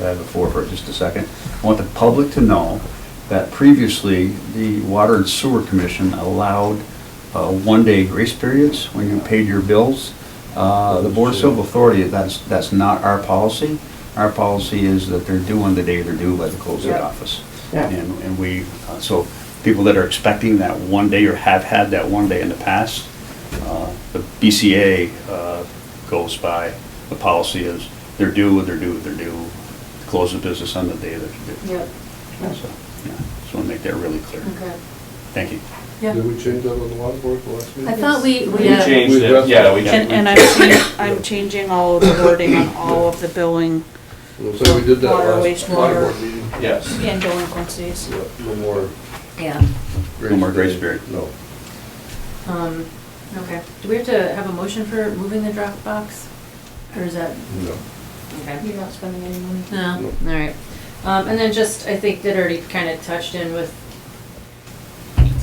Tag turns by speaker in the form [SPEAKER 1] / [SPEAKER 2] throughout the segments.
[SPEAKER 1] uh, the floor for just a second. I want the public to know that previously, the Water and Sewer Commission allowed uh, one-day grace periods when you paid your bills. Uh, The Board of Civil Authority, that's, that's not our policy. Our policy is that they're due on the day they're due by the close of the
[SPEAKER 2] Yeah.
[SPEAKER 1] office.
[SPEAKER 2] Yeah.
[SPEAKER 1] And, and we, uh, so people that are expecting that one day or have had that one day in the past, uh, the BCA uh, goes by, the policy is they're due, they're due, they're due, close the business on the day that they're due.
[SPEAKER 3] Yep,
[SPEAKER 1] So, yeah, just want to make that really clear.
[SPEAKER 3] okay.
[SPEAKER 1] Thank you.
[SPEAKER 3] Yeah.
[SPEAKER 4] Did we change that on the water board the last meeting?
[SPEAKER 3] I thought we,
[SPEAKER 5] We
[SPEAKER 3] we, uh,
[SPEAKER 5] changed it, yeah, we.
[SPEAKER 2] And, and I'm changing, I'm changing all of the wording on all of the billing
[SPEAKER 4] So we did that
[SPEAKER 2] Water,
[SPEAKER 4] last
[SPEAKER 2] wastewater.
[SPEAKER 4] water board meeting.
[SPEAKER 5] Yes.
[SPEAKER 2] and delinquencies.
[SPEAKER 4] Yeah, No more
[SPEAKER 3] yeah,
[SPEAKER 4] grace.
[SPEAKER 1] No more grace
[SPEAKER 4] period.
[SPEAKER 1] period.
[SPEAKER 4] No.
[SPEAKER 3] um, okay. Do we have to have a motion for moving the Dropbox? Or is that,
[SPEAKER 4] No.
[SPEAKER 3] okay.
[SPEAKER 6] You're not spending any money.
[SPEAKER 3] No,
[SPEAKER 4] No.
[SPEAKER 3] all right. Um, and then just, I think that already kind of touched in with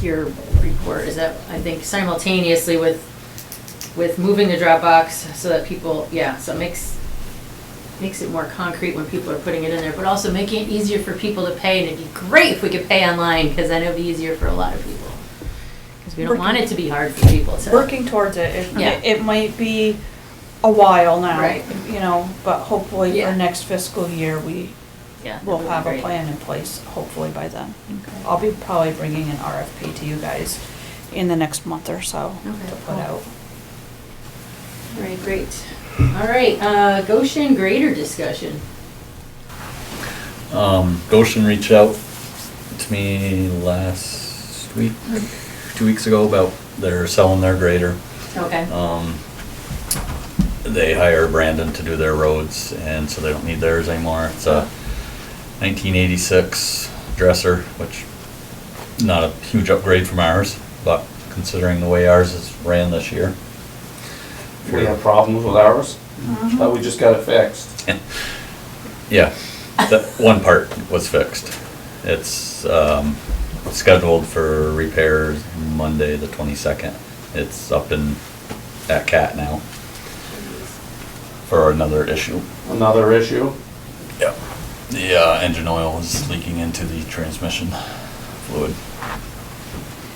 [SPEAKER 3] your report, is that, I think simultaneously with, with moving the Dropbox so that people, yeah, so it makes, makes it more concrete when people are putting it in there, but also making it easier for people to pay, and it'd be great if we could pay online, because then it'd be easier for a lot of people. Because we don't want it to be hard for people to.
[SPEAKER 2] Working towards it,
[SPEAKER 3] Yeah.
[SPEAKER 2] it, it might be a while now,
[SPEAKER 3] Right.
[SPEAKER 2] you know, but hopefully for
[SPEAKER 3] Yeah.
[SPEAKER 2] next fiscal year, we
[SPEAKER 3] Yeah,
[SPEAKER 2] will
[SPEAKER 3] that'd be
[SPEAKER 2] have a
[SPEAKER 3] great.
[SPEAKER 2] plan in place, hopefully by then.
[SPEAKER 3] Okay.
[SPEAKER 2] I'll be probably bringing an RFP to you guys in the next month or so
[SPEAKER 3] Okay,
[SPEAKER 2] to
[SPEAKER 3] cool.
[SPEAKER 2] put out.
[SPEAKER 3] All right, great. All right, uh, Goshen grader discussion.
[SPEAKER 7] Um, Goshen reached out to me last week, two weeks ago about they're selling their grader.
[SPEAKER 3] Okay.
[SPEAKER 7] Um, they hire Brandon to do their roads and so they don't need theirs anymore. It's a nineteen eighty-six dresser, which not a huge upgrade from ours, but considering the way ours is ran this year.
[SPEAKER 5] We have problems with ours, but we just got it fixed.
[SPEAKER 7] Yeah, that one part was fixed. It's um, scheduled for repairs Monday, the twenty-second. It's up in, at CAT now for another issue.
[SPEAKER 5] Another issue,
[SPEAKER 7] Yep. The uh, engine oil is leaking into the transmission fluid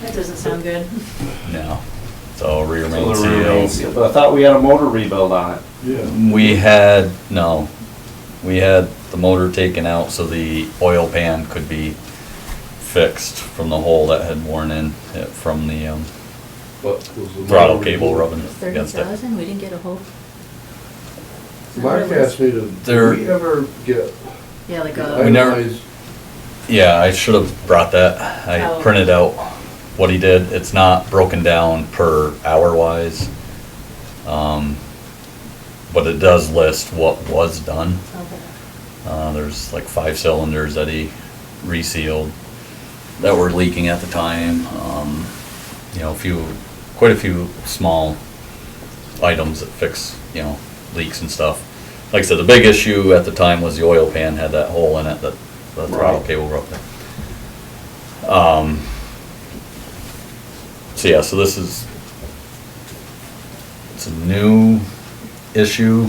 [SPEAKER 3] That doesn't sound good.
[SPEAKER 7] now. So rear
[SPEAKER 5] So
[SPEAKER 7] main
[SPEAKER 5] the rear main
[SPEAKER 7] seal.
[SPEAKER 5] seal, but I thought we had a motor rebuild on it.
[SPEAKER 4] Yeah.
[SPEAKER 7] We had, no, we had the motor taken out so the oil pan could be fixed from the hole that had worn in, it- from the um,
[SPEAKER 4] But was the
[SPEAKER 7] throttle
[SPEAKER 4] water
[SPEAKER 7] cable
[SPEAKER 4] removed?
[SPEAKER 7] rubbing
[SPEAKER 3] Thirty
[SPEAKER 7] against it.
[SPEAKER 3] thousand, we didn't get a whole.
[SPEAKER 4] Mark asked me to,
[SPEAKER 7] There-
[SPEAKER 4] did we ever get
[SPEAKER 3] Yeah, like
[SPEAKER 7] We
[SPEAKER 3] a,
[SPEAKER 7] never-
[SPEAKER 4] itemized
[SPEAKER 7] Yeah, I should have brought that.
[SPEAKER 3] Oh.
[SPEAKER 7] I printed out what he did. It's not broken down per hour wise. Um, But it does list what was done.
[SPEAKER 3] okay,
[SPEAKER 7] Uh, there's like five cylinders that he resealed that were leaking at the time. Um, you know, a few, quite a few small items that fix, you know, leaks and stuff. Like I said, the big issue at the time was the oil pan had that hole in it that the throttle
[SPEAKER 5] Right.
[SPEAKER 7] cable broke. Um, so yeah, so this is, it's a new issue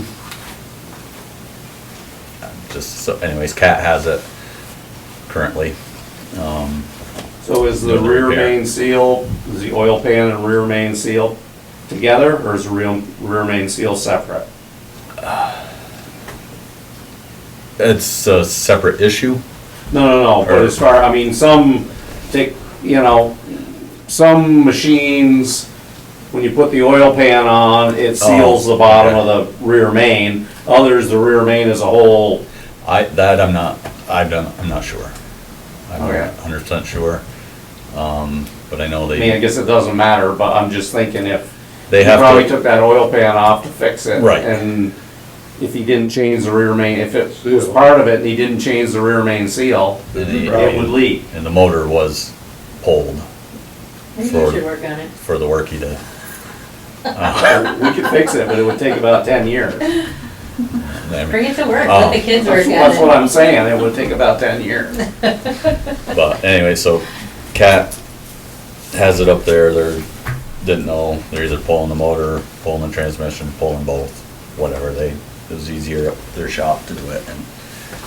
[SPEAKER 7] just so anyways cat has it currently um,
[SPEAKER 5] So is the
[SPEAKER 7] Another
[SPEAKER 5] rear
[SPEAKER 7] repair.
[SPEAKER 5] main seal, is the oil pan and rear main seal together, or is the real, rear main seal separate?
[SPEAKER 7] it's a separate issue
[SPEAKER 5] No, no, no, but
[SPEAKER 7] Or-
[SPEAKER 5] as far, I mean, some take, you know, some machines, when you put the oil pan on, it
[SPEAKER 7] Oh,
[SPEAKER 5] seals the bottom
[SPEAKER 7] okay.
[SPEAKER 5] of the rear main. Others, the rear main is a whole,
[SPEAKER 7] i that i'm not i don't i'm not sure i'm
[SPEAKER 5] Okay.
[SPEAKER 7] not 100% sure um, but i know
[SPEAKER 5] I mean, I
[SPEAKER 7] they
[SPEAKER 5] guess it doesn't matter, but I'm just thinking if. he
[SPEAKER 7] they have
[SPEAKER 5] Probably
[SPEAKER 7] to
[SPEAKER 5] took that oil pan off to fix it.
[SPEAKER 7] Right.
[SPEAKER 5] And if he didn't change the rear main, if it was
[SPEAKER 4] Seal.
[SPEAKER 5] part of it and he didn't change the rear main seal,
[SPEAKER 7] and, the-
[SPEAKER 5] it would leak.
[SPEAKER 7] and the motor was pulled
[SPEAKER 3] maybe we
[SPEAKER 7] Florida.
[SPEAKER 3] should work on it.
[SPEAKER 7] for the work he did
[SPEAKER 5] We could fix it, but it would take about ten years.
[SPEAKER 7] I mean,
[SPEAKER 3] Bring it to work, let the
[SPEAKER 7] Oh.
[SPEAKER 3] kids work
[SPEAKER 5] That's
[SPEAKER 3] on it.
[SPEAKER 5] that's what I'm saying, it would take about ten years.
[SPEAKER 7] but anyway so cat has it up there they're didn't know they're either pulling the motor pulling the transmission pulling both whatever they it was easier at their shop to do it and